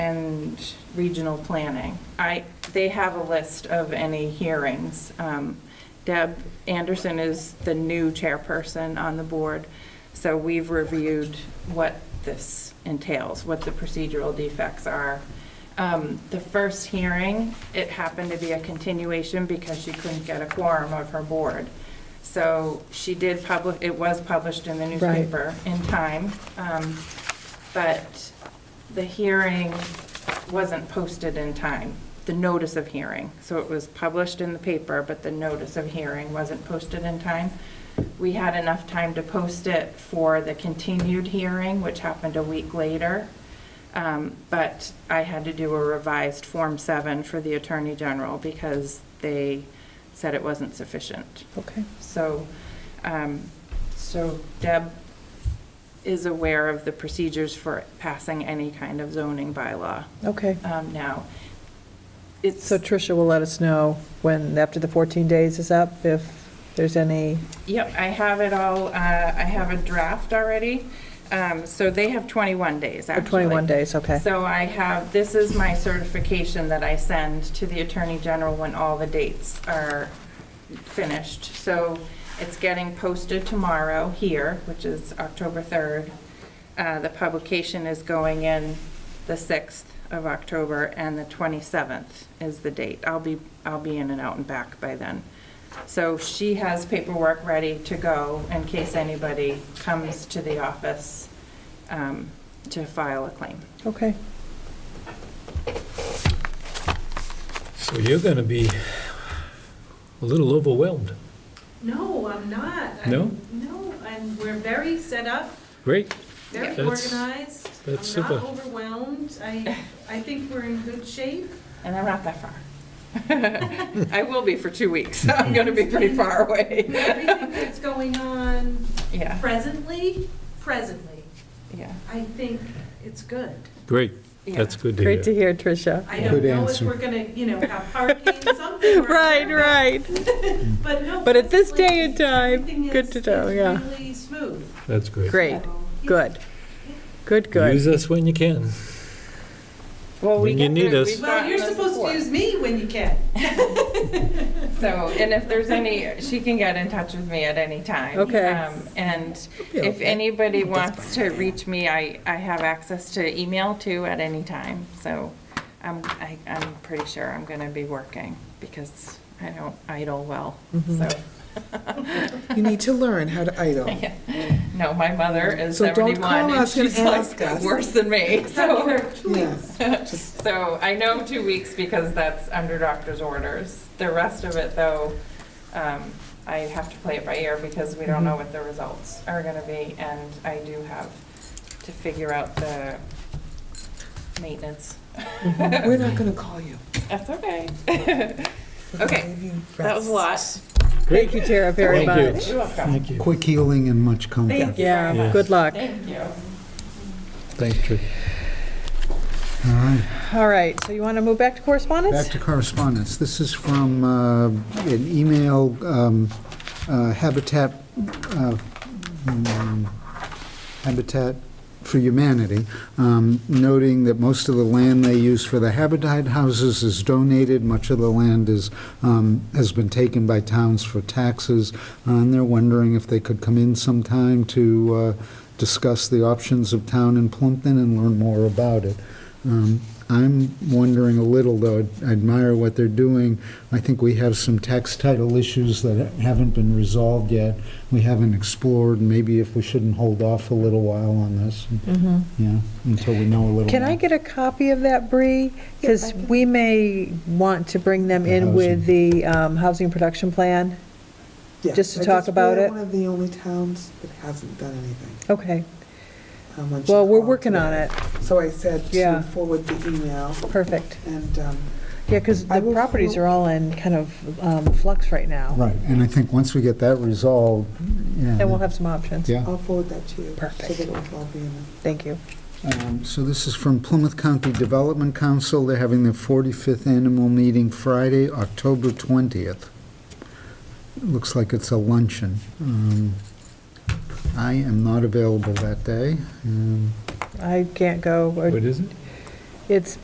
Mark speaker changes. Speaker 1: include regional planning. I, they have a list of any hearings. Um, Deb Anderson is the new chairperson on the board, so we've reviewed what this entails, what the procedural defects are. Um, The first hearing, it happened to be a continuation because she couldn't get a quorum of her board. So she did public, it was published in the newspaper in time, um, but the hearing wasn't posted in time, the notice of hearing. So it was published in the paper, but the notice of hearing wasn't posted in time. We had enough time to post it for the continued hearing, which happened a week later. Um, But I had to do a revised Form 7 for the Attorney General because they said it wasn't sufficient.
Speaker 2: Okay.
Speaker 1: So, um, so Deb is aware of the procedures for passing any kind of zoning bylaw
Speaker 2: Okay.
Speaker 1: um, now. It's,
Speaker 2: So Tricia will let us know when, after the 14 days is up, if there's any,
Speaker 1: yep, I have it all, uh, I have a draft already. Um, So they have 21 days,
Speaker 2: or
Speaker 1: actually.
Speaker 2: 21 days, okay.
Speaker 1: So I have, this is my certification that I send to the Attorney General when all the dates are finished. So it's getting posted tomorrow here, which is October 3rd. Uh, The publication is going in the 6th of October, and the 27th is the date. I'll be, I'll be in and out and back by then. So she has paperwork ready to go in case anybody comes to the office um, to file a claim.
Speaker 2: Okay.
Speaker 3: So you're going to be a little overwhelmed.
Speaker 4: No, I'm not. I'm-
Speaker 3: No?
Speaker 4: No, and we're very set up,
Speaker 3: Great.
Speaker 4: very
Speaker 3: Yeah. That's-
Speaker 4: organized.
Speaker 3: that's
Speaker 4: I'm not
Speaker 3: super.
Speaker 4: overwhelmed. I, I think we're in good shape.
Speaker 1: And I'm not that far. I will be for two weeks. I'm going to be pretty far away.
Speaker 4: Everything that's going on
Speaker 1: Yeah,
Speaker 4: presently, presently,
Speaker 1: yeah.
Speaker 4: I think it's good.
Speaker 3: Great.
Speaker 1: yeah.
Speaker 3: That's good to
Speaker 2: Great to
Speaker 3: hear.
Speaker 2: hear, Tricia.
Speaker 4: I don't
Speaker 5: Good
Speaker 4: know if
Speaker 5: answer.
Speaker 4: we're gonna, you know, have hurricane something.
Speaker 2: Right,
Speaker 4: or-
Speaker 2: right.
Speaker 4: But no.
Speaker 2: But at this
Speaker 4: presently,
Speaker 2: day and time,
Speaker 4: everything
Speaker 2: good
Speaker 4: is-
Speaker 2: to know,
Speaker 4: is
Speaker 2: yeah.
Speaker 4: really smooth.
Speaker 3: That's great.
Speaker 2: Great,
Speaker 4: So, yeah.
Speaker 2: good. Good,
Speaker 3: Use
Speaker 2: good.
Speaker 3: us when you can.
Speaker 1: Well, we
Speaker 3: When you
Speaker 1: get
Speaker 3: need
Speaker 1: the-
Speaker 3: us.
Speaker 1: we've
Speaker 4: Well,
Speaker 1: gotten
Speaker 4: you're
Speaker 1: this
Speaker 4: supposed
Speaker 1: before.
Speaker 4: to use me when you can.
Speaker 1: So, and if there's any, she can get in touch with me at any time.
Speaker 2: Okay.
Speaker 1: Um, And
Speaker 2: Yeah.
Speaker 1: if anybody wants to reach me, I, I have access to email too at any time. So I'm, I, I'm pretty sure I'm going to be working because I don't idle well, so.
Speaker 5: You need to learn how to idle.
Speaker 1: No, my mother is
Speaker 5: So don't
Speaker 1: 71
Speaker 5: call
Speaker 1: and
Speaker 5: us and
Speaker 1: she's like
Speaker 5: ask us.
Speaker 1: worse than me. So,
Speaker 5: Yes.
Speaker 1: so I know two weeks because that's under doctor's orders. The rest of it though, um, I have to play it by ear because we
Speaker 5: Mm-hmm.
Speaker 1: don't know what the results are going to be. And I do have to figure out the maintenance.
Speaker 5: We're not gonna call you.
Speaker 1: That's okay.
Speaker 5: We're gonna
Speaker 1: Okay.
Speaker 5: leave you
Speaker 1: That was a lot.
Speaker 2: Thank you, Tara, very
Speaker 3: Thank
Speaker 2: much.
Speaker 1: You're welcome.
Speaker 3: Thank you.
Speaker 5: Quick healing and much
Speaker 1: Thank
Speaker 5: comfort.
Speaker 1: you very
Speaker 2: Yeah,
Speaker 1: much.
Speaker 2: good luck.
Speaker 1: Thank you.
Speaker 3: Thanks, Trish.
Speaker 5: All right,
Speaker 2: All right, so you want to move back to correspondence?
Speaker 5: back to correspondence. This is from uh, an email, um, uh, Habitat, uh, mm, Habitat for Humanity, um, noting that most of the land they use for the Habitat houses is donated, much of the land is, um, has been taken by towns for taxes, Uh, and they're wondering if they could come in sometime to uh, discuss the options of town in Plumpton and learn more about it. Um, I'm wondering a little, though, I admire what they're doing. I think we have some tax title issues that haven't been resolved yet. We haven't explored, maybe if we shouldn't hold off a little while on this,
Speaker 2: Mhm.
Speaker 5: yeah, until we know a little.
Speaker 2: Can I
Speaker 5: more.
Speaker 2: get a copy of that, Bree? Because we may want to bring them
Speaker 5: The
Speaker 2: in with
Speaker 5: housing.
Speaker 2: the um, housing production plan.
Speaker 6: Yeah,
Speaker 2: just to
Speaker 6: I
Speaker 2: talk
Speaker 6: guess
Speaker 2: about
Speaker 6: we're
Speaker 2: it?
Speaker 6: One of the only towns that hasn't done anything.
Speaker 2: Okay,
Speaker 6: um, when she
Speaker 2: well, we're
Speaker 6: called
Speaker 2: working on
Speaker 6: today.
Speaker 2: it.
Speaker 6: So I said
Speaker 2: Yeah.
Speaker 6: to forward the email,
Speaker 2: Perfect.
Speaker 6: and um,
Speaker 2: Yeah, because
Speaker 6: I
Speaker 2: the
Speaker 6: will
Speaker 2: properties
Speaker 6: fo-
Speaker 2: are all in kind of um, flux right now,
Speaker 5: Right, and I think once we get that resolved, yeah.
Speaker 2: and we'll have some options.
Speaker 5: Yeah.
Speaker 6: I'll forward that to you.
Speaker 2: Perfect.
Speaker 6: So that it'll all be in it.
Speaker 2: Thank you.
Speaker 5: Um, So this is from Plymouth County Development Council. They're having their 45th annual meeting Friday, October 20th. Looks like it's a luncheon. Um, I am not available that day. Um,
Speaker 2: I can't go, or
Speaker 3: What is it?
Speaker 2: it's